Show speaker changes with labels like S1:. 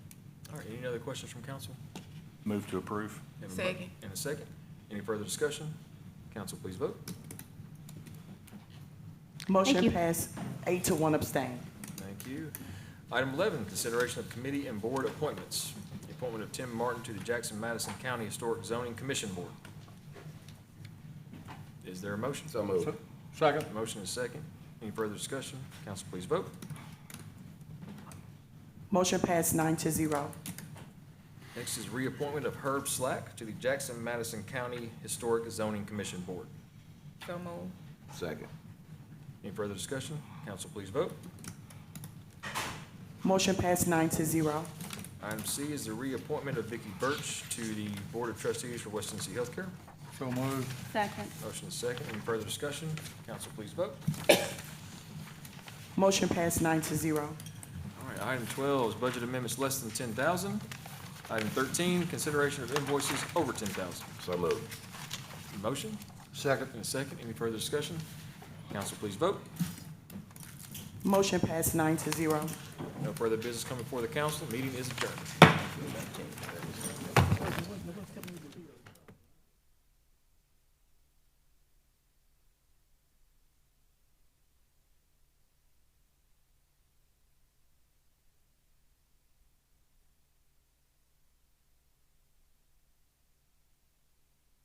S1: Any other questions from council?
S2: Move to approve.
S1: We have a mo-
S3: Second.
S1: And a second. Any further discussion? Council, please vote.
S4: Motion
S5: you.
S4: passed, eight to one abstain.
S1: Thank you. Item 11, consideration of committee and board appointments. The appointment of Tim Martin to the Jackson Madison County Historic Zoning Commission Board. Is there a motion?
S6: So moved. Second.
S1: Motion is second. Any further discussion? Council, please vote.
S4: Motion passed, nine to zero.
S1: Next is reappointment of Herb Slack to the Jackson Madison County Historic Zoning Commission Board.
S3: So move.
S6: Second.
S1: Any further discussion? Council, please vote.
S4: Motion passed, nine to zero.
S1: Item C is the reappointment of Vicky Birch to the Board of Trustees for West Tennessee Healthcare.
S6: So moved.
S5: Second.
S1: Motion is second. Any further discussion? Council, please vote.
S4: Motion passed, nine to zero.
S1: All right, item twelve is budget amendments less than ten thousand. Item thirteen, consideration of invoices over ten thousand.
S6: So moved.
S1: Motion
S6: Second.
S1: and a second. Any further discussion? Council, please vote.
S4: Motion passed, nine to zero.
S1: No further business coming before the council. Meeting is adjourned.